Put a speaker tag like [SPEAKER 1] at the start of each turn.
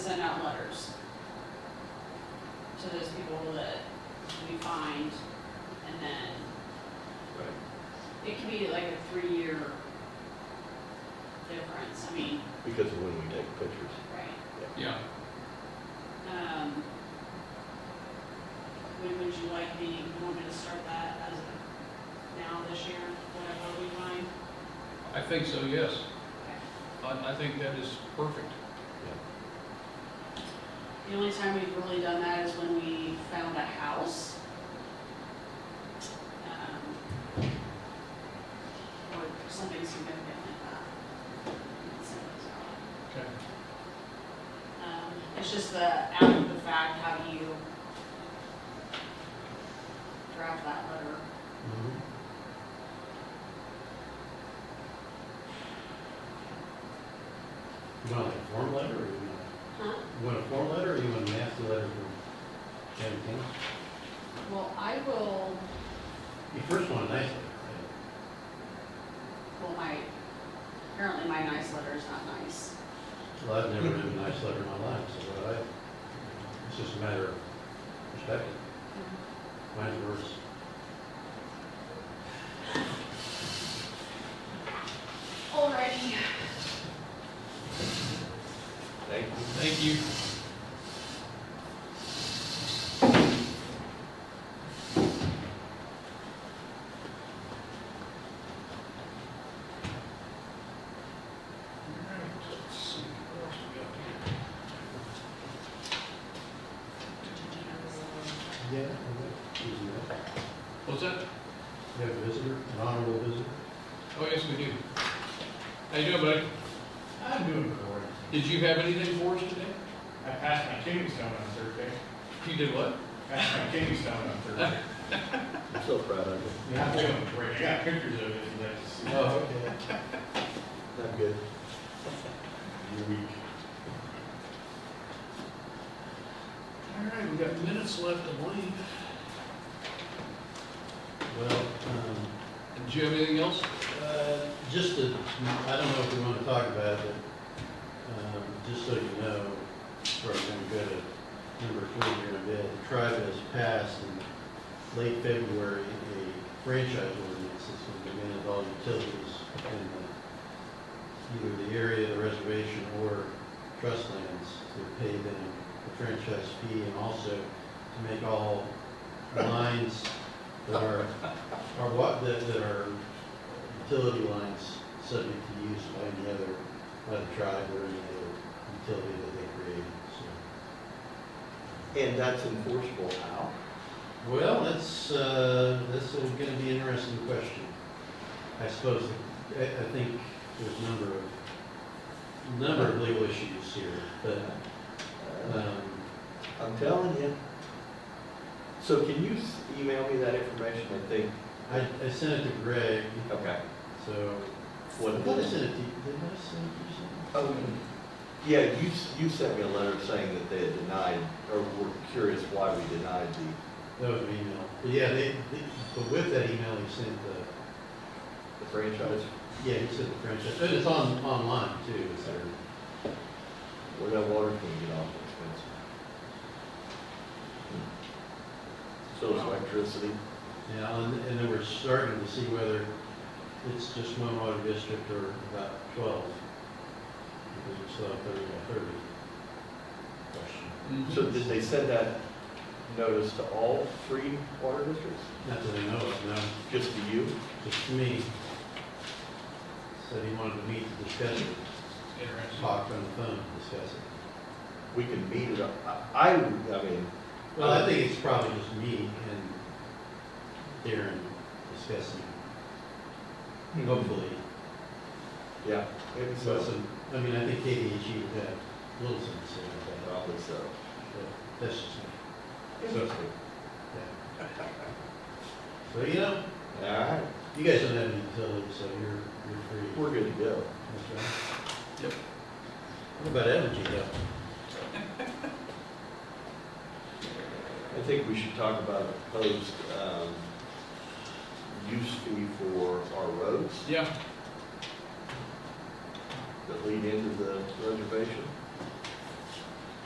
[SPEAKER 1] to those people that we find, and then
[SPEAKER 2] Right.
[SPEAKER 1] it can be like a three-year difference, I mean,
[SPEAKER 2] Because of when we take pictures.
[SPEAKER 1] right?
[SPEAKER 3] Yeah,
[SPEAKER 1] Um, When would you like me, you want me to start that as of now this year, whatever we find?
[SPEAKER 3] I think so, yes.
[SPEAKER 1] Okay.
[SPEAKER 3] I, I think that is perfect.
[SPEAKER 1] The only time we've really done that is when we found a house. Um, Or something significant like that. So it's not-
[SPEAKER 3] Okay.
[SPEAKER 1] um, It's just the, out of the fact, how do you draft that letter?
[SPEAKER 2] Mm-hmm.
[SPEAKER 4] You want like a form letter, or you want,
[SPEAKER 1] Huh?
[SPEAKER 4] you want a form letter, or you want a nasty letter from Jen King?
[SPEAKER 1] Well, I will,
[SPEAKER 4] You first want a nice letter,
[SPEAKER 1] well, my, apparently my nice letter is not nice.
[SPEAKER 4] right? Well, I've never written a nice letter in my life, so what I, it's just a matter of perspective, mine's worse.
[SPEAKER 1] Alrighty.
[SPEAKER 2] Thank you.
[SPEAKER 3] Thank you. All right, let's see, what else we got here?
[SPEAKER 4] Yeah. Excuse me,
[SPEAKER 3] What's that?
[SPEAKER 4] you have a visitor, an honorable visitor?
[SPEAKER 3] Oh, yes, we do. How you doing, buddy?
[SPEAKER 5] I'm doing great.
[SPEAKER 3] Did you have anything for us today?
[SPEAKER 5] I passed my Kingsstone on Thursday.
[SPEAKER 3] You did what?
[SPEAKER 5] Passed my Kingsstone on Thursday.
[SPEAKER 2] I'm so proud of you.
[SPEAKER 5] I'm doing great. I got pictures of it if you'd like to see.
[SPEAKER 2] Oh, okay. Not good.
[SPEAKER 5] You're weak.
[SPEAKER 3] All right, we've got minutes left, I believe.
[SPEAKER 4] Well, um,
[SPEAKER 3] And do you have anything else?
[SPEAKER 4] Uh, Just to, I don't know if we want to talk about it, but um, just so you know, we're going to go to number three here in a bit. The tribe has passed in late February a franchise ordinance that's going to demand all utilities in the, either the area, the reservation, or trust lands to pay them the franchise fee and also to make all lines that are, are what, that that are utility lines subject to use by any other, by the tribe or any other utility that they create, so.
[SPEAKER 2] And that's enforceable how?
[SPEAKER 4] Well, that's, uh, that's a- gonna be an interesting question. I suppose, I, I think there's a number of, number of legal issues here, but,
[SPEAKER 2] Uh,
[SPEAKER 4] um,
[SPEAKER 2] I'm telling you. So can you s- email me that information, I think?
[SPEAKER 4] I, I sent it to Greg,
[SPEAKER 2] Okay.
[SPEAKER 4] so.
[SPEAKER 2] What?
[SPEAKER 4] I thought I sent it to, did I send it to you?
[SPEAKER 2] Oh, yeah, you, s- you sent me a letter saying that they had denied, or were curious why we denied the,
[SPEAKER 4] That was an email. But yeah, they, they- but with that email, he sent the,
[SPEAKER 2] the franchise.
[SPEAKER 4] Yeah, he said the franchise, but it's on, online too, it's there.
[SPEAKER 2] Where that water can get off expensive. Hmm. So is electricity.
[SPEAKER 4] Yeah, and, and then we're starting to see whether it's just one water district or about twelve. Because we still have thirty by thirty question.
[SPEAKER 3] Mm-hmm.
[SPEAKER 2] So did they send that notice to all three water districts?
[SPEAKER 4] Not that I know of, no,
[SPEAKER 2] Just to you?
[SPEAKER 4] just to me. Said he wanted to meet to discuss it,
[SPEAKER 3] Interesting.
[SPEAKER 4] talk on the phone to discuss it.
[SPEAKER 2] We can meet it up. I, I I mean,
[SPEAKER 4] Well, I think it's probably just me and Darren discussing,
[SPEAKER 2] Hmm.
[SPEAKER 4] hopefully.
[SPEAKER 2] yeah, maybe
[SPEAKER 4] So,
[SPEAKER 2] so.
[SPEAKER 4] I mean, I think KDHE would have a little sense of that,
[SPEAKER 2] Probably so.
[SPEAKER 4] but uh, that's just me.
[SPEAKER 2] Interesting.
[SPEAKER 4] Yeah. So, you know,
[SPEAKER 2] All right,
[SPEAKER 4] you guys don't have any utilities, so you're, you're free.
[SPEAKER 2] we're good to go.
[SPEAKER 4] That's right.
[SPEAKER 3] Yep.
[SPEAKER 4] What about energy though?
[SPEAKER 2] I think we should talk about a proposed, um, use fee for our roads
[SPEAKER 3] Yeah,
[SPEAKER 2] that lead into the reservation.